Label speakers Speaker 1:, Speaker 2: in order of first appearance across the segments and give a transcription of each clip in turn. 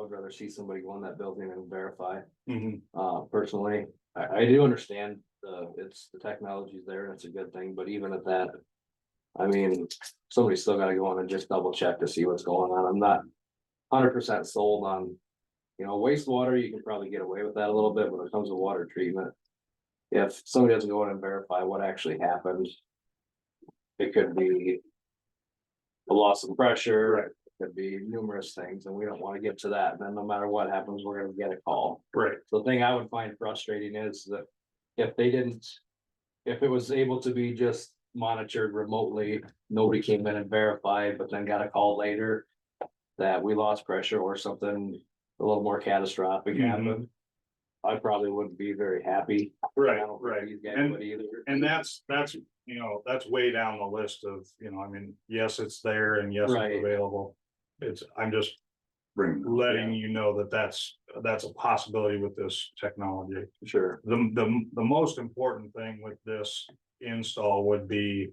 Speaker 1: I'd rather see somebody go in that building and verify.
Speaker 2: Mhm.
Speaker 1: Uh, personally, I, I do understand, uh, it's, the technology's there and it's a good thing, but even at that. I mean, somebody's still gotta go in and just double check to see what's going on. I'm not hundred percent sold on. You know, wastewater, you can probably get away with that a little bit when it comes to water treatment. If somebody doesn't go in and verify what actually happened. It could be. A loss of pressure,
Speaker 2: Right.
Speaker 1: it could be numerous things, and we don't wanna get to that. And then no matter what happens, we're gonna get a call.
Speaker 2: Right,
Speaker 1: The thing I would find frustrating is that if they didn't. If it was able to be just monitored remotely, nobody came in and verified, but then got a call later. That we lost pressure or something a little more catastrophic
Speaker 2: Mhm.
Speaker 1: happened. I probably wouldn't be very happy. I
Speaker 2: right,
Speaker 1: don't
Speaker 2: right.
Speaker 1: think these guys
Speaker 2: And
Speaker 1: would either.
Speaker 2: And that's, that's, you know, that's way down the list of, you know, I mean, yes, it's there and yes,
Speaker 1: Right.
Speaker 2: it's available. It's, I'm just
Speaker 3: Bring, them.
Speaker 2: letting you know that that's, that's a possibility with this technology.
Speaker 1: Sure,
Speaker 2: The, the, the most important thing with this install would be.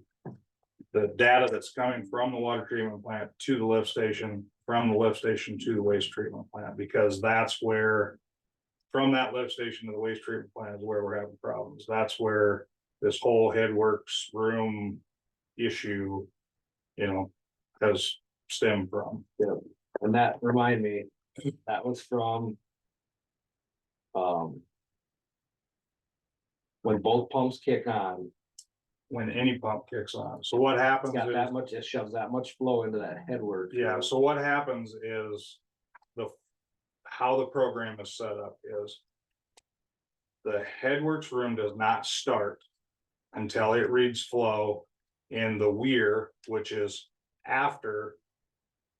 Speaker 2: The data that's coming from the water treatment plant to the lift station, from the lift station to the waste treatment plant, because that's where. From that lift station to the waste treatment plant is where we're having problems. That's where this whole headworks room issue. You know, has stemmed from.
Speaker 1: and that remind me, that was from. Um. When both pumps kick on,
Speaker 2: when any pump kicks on. So what happens
Speaker 1: It's got
Speaker 2: is,
Speaker 1: that much, it shoves that much flow into that headwork.
Speaker 2: yeah, so what happens is the, how the program is set up is the headworks room does not start until it reads flow in the weir, which is after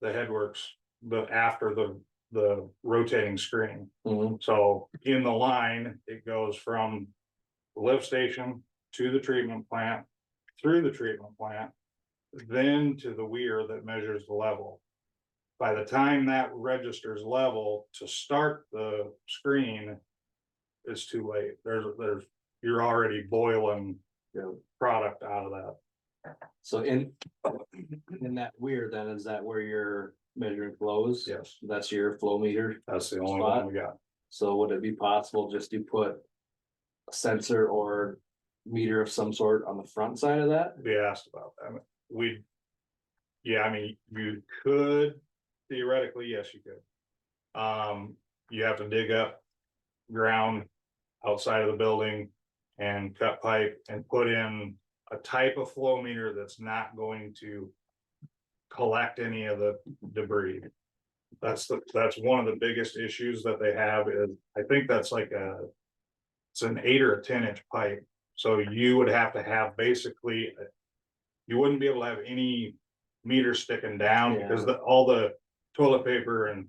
Speaker 2: the headworks, the, after the, the rotating screen.
Speaker 1: Mhm.
Speaker 2: So in the line, it goes from the lift station to the treatment plant, through the treatment plant, then to the weir that measures the level. By the time that registers level to start the screen, it's too late. There's, there's, you're already boiling
Speaker 1: Yeah.
Speaker 2: product out of that.
Speaker 1: So in, in that weir, then is that where you're measuring flows?
Speaker 2: Yes,
Speaker 1: That's your flow meter.
Speaker 2: that's the only one we got.
Speaker 1: So would it be possible just to put a sensor or meter of some sort on the front side of that?
Speaker 2: Be asked about that. We, yeah, I mean, you could theoretically, yes, you could. Um, you have to dig up ground outside of the building and cut pipe and put in a type of flow meter that's not going to collect any of the debris. That's the, that's one of the biggest issues that they have is, I think that's like a, it's an eight or a ten inch pipe. So you would have to have basically, uh, you wouldn't be able to have any meter sticking down because the, all the toilet paper and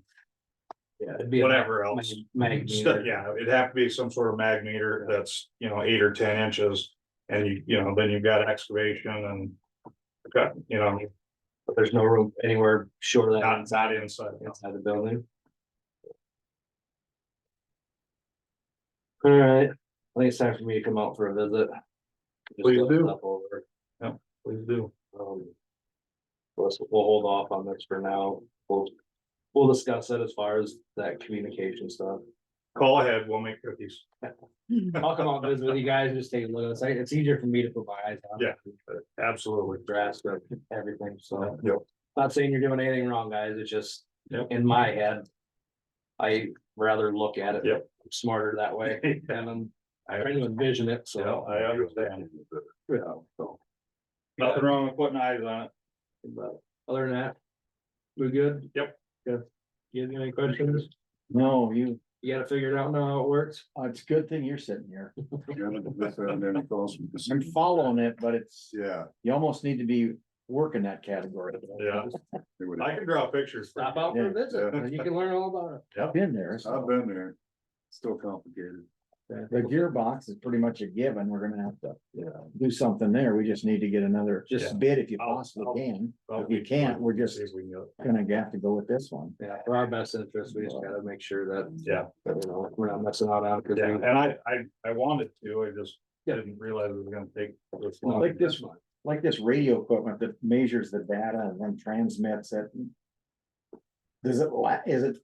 Speaker 1: Yeah. it'd be a
Speaker 2: whatever
Speaker 1: mag-
Speaker 2: else.
Speaker 1: Mag
Speaker 2: Stu-
Speaker 1: meter.
Speaker 2: Yeah, it'd have to be some sort of mag meter that's, you know, eight or ten inches. And you, you know, then you've got excavation and got, you know,
Speaker 1: But there's no room anywhere short of that
Speaker 2: not, not inside.
Speaker 1: inside the building. All right, I think it's time for me to come out for a visit. Just
Speaker 2: Please
Speaker 1: look
Speaker 2: do.
Speaker 1: stuff over.
Speaker 2: Please do.
Speaker 1: Um. Let's, we'll hold off on this for now. We'll, we'll discuss it as far as that communication stuff.
Speaker 2: Call ahead, we'll make cookies.
Speaker 1: I'll come out and visit with you guys, just take a look. It's, it's easier for me to put my eyes on.
Speaker 2: Yeah. Absolutely.
Speaker 1: Drafts of everything, so.
Speaker 2: Yep.
Speaker 1: Not saying you're doing anything wrong, guys, it's just,
Speaker 2: Yep.
Speaker 1: in my head. I rather look at it.
Speaker 2: Yep.
Speaker 1: Smarter that way, and I'm trying to envision it,
Speaker 2: Yeah,
Speaker 1: so.
Speaker 2: I understand.
Speaker 1: Yeah, so.
Speaker 2: Nothing wrong with putting eyes on it.
Speaker 1: But other than that, we good?
Speaker 2: Yep.
Speaker 1: Good. You have any questions?
Speaker 4: No, you,
Speaker 1: You gotta figure it out now how it works?
Speaker 4: uh, it's a good thing you're sitting here. I'm
Speaker 3: Yeah,
Speaker 4: following it, but it's, you almost need to be working that category.
Speaker 2: Yeah,
Speaker 3: it would-
Speaker 2: I can draw pictures. for you.
Speaker 1: Stop out for a visit, and you can learn all about it.
Speaker 4: I've been there,
Speaker 3: I've
Speaker 4: so
Speaker 3: been there, still complicated.
Speaker 4: the gearbox is pretty much a given. We're gonna have to
Speaker 1: Yeah.
Speaker 4: do something there. We just need to get another
Speaker 2: Just-
Speaker 4: bid if you
Speaker 2: I'll-
Speaker 4: possibly
Speaker 2: I'll-
Speaker 4: can.
Speaker 2: Well,
Speaker 4: If you can't, we're just
Speaker 2: see if we oh. can go.
Speaker 4: gonna have to go with this one.
Speaker 1: Yeah, for our best interest, we just gotta make sure that,
Speaker 2: Yeah,
Speaker 1: you know, we're not messing out on.
Speaker 2: yeah, and I, I, I wanted to, I just didn't realize it was gonna take this long.
Speaker 4: Like this
Speaker 1: one.
Speaker 4: Like this radio equipment that measures the data and then transmits it. Does it la, is it